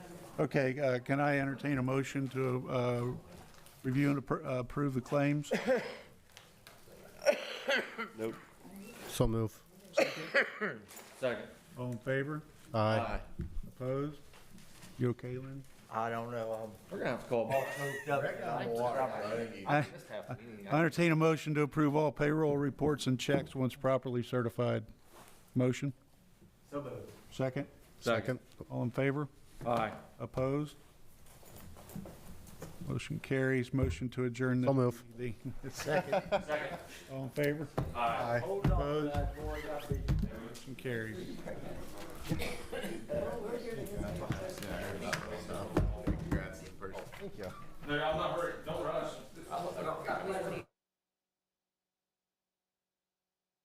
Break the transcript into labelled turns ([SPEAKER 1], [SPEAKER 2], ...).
[SPEAKER 1] Okay, uh, can I entertain a motion to uh, review and appro- uh, approve the claims?
[SPEAKER 2] So move.
[SPEAKER 3] Second.
[SPEAKER 1] All in favor?
[SPEAKER 2] Aye.
[SPEAKER 1] Opposed? You okay, Lynn?
[SPEAKER 4] I don't know,
[SPEAKER 3] We're gonna have to call.
[SPEAKER 4] I'm hooked up on the water.
[SPEAKER 1] I
[SPEAKER 3] Missed half the meeting.
[SPEAKER 1] I entertain a motion to approve all payroll reports and checks once properly certified. Motion? So moved. Second?
[SPEAKER 2] Second.
[SPEAKER 1] All in favor?
[SPEAKER 3] Aye.
[SPEAKER 1] Opposed? Motion carries. Motion to adjourn. the-
[SPEAKER 2] So move.
[SPEAKER 1] the- All in favor? Aye. Opposed? Motion carries.
[SPEAKER 3] No, I'm not hurt. Don't rush.